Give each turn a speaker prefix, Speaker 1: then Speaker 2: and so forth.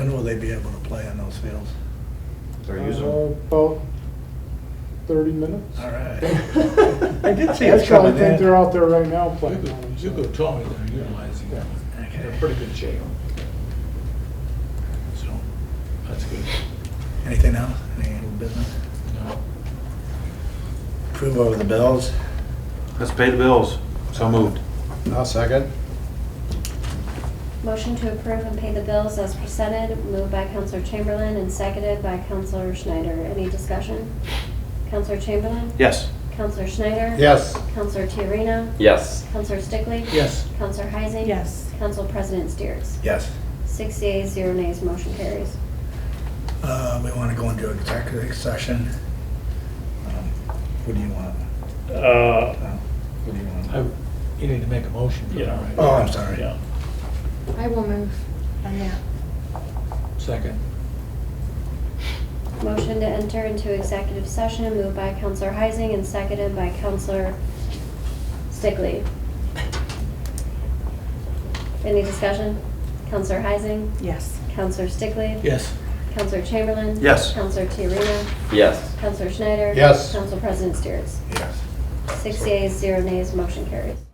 Speaker 1: they be able to play on those fields?
Speaker 2: They're using
Speaker 3: Uh,
Speaker 2: them.
Speaker 3: About thirty minutes.
Speaker 1: All right. I
Speaker 3: I
Speaker 1: did see it's
Speaker 3: That's why I
Speaker 1: coming in.
Speaker 3: think they're out there right now
Speaker 4: You
Speaker 3: playing. on
Speaker 4: could, you
Speaker 3: it,
Speaker 4: could
Speaker 3: so.
Speaker 4: tell me they're utilizing them. They're in
Speaker 1: Okay.
Speaker 4: pretty good shape. So, that's good.
Speaker 1: Anything else? Any old business?
Speaker 4: No.
Speaker 1: Approve over the bills?
Speaker 2: Let's pay the bills. So moved.
Speaker 5: I'll second.
Speaker 6: Motion to approve and pay the bills as presented, moved by Counselor Chamberlain and seconded by Counselor Schneider. Any discussion? Counselor Chamberlain?
Speaker 2: Yes.
Speaker 6: Counselor Schneider?
Speaker 5: Yes.
Speaker 6: Counselor Tiarena?
Speaker 7: Yes.
Speaker 6: Counselor Stickley?
Speaker 4: Yes.
Speaker 6: Counselor Heising?
Speaker 8: Yes.
Speaker 6: Counsel President Steers?
Speaker 1: Yes.
Speaker 6: Six yeas, zero nays, motion carries.
Speaker 1: Uh, we want to go into executive session. Um, What do you want?
Speaker 9: Uh,
Speaker 1: Uh, What do you
Speaker 4: I,
Speaker 1: want?
Speaker 4: you need to make a motion for
Speaker 9: Yeah.
Speaker 4: that,
Speaker 1: Oh,
Speaker 4: right?
Speaker 1: I'm sorry.
Speaker 9: yeah.
Speaker 8: I will move on that.
Speaker 4: Second.
Speaker 6: Motion to enter into executive session, moved by Counselor Heising and seconded by Counselor Stickley. Any discussion? Counselor Heising?
Speaker 8: Yes.
Speaker 6: Counselor Stickley?
Speaker 4: Yes.
Speaker 6: Counselor Chamberlain?
Speaker 2: Yes.
Speaker 6: Counselor Tiarena?
Speaker 7: Yes.
Speaker 6: Counselor Schneider?
Speaker 5: Yes.
Speaker 6: Counsel President Steers?
Speaker 1: Yes.
Speaker 6: Six yeas, zero nays, motion carries.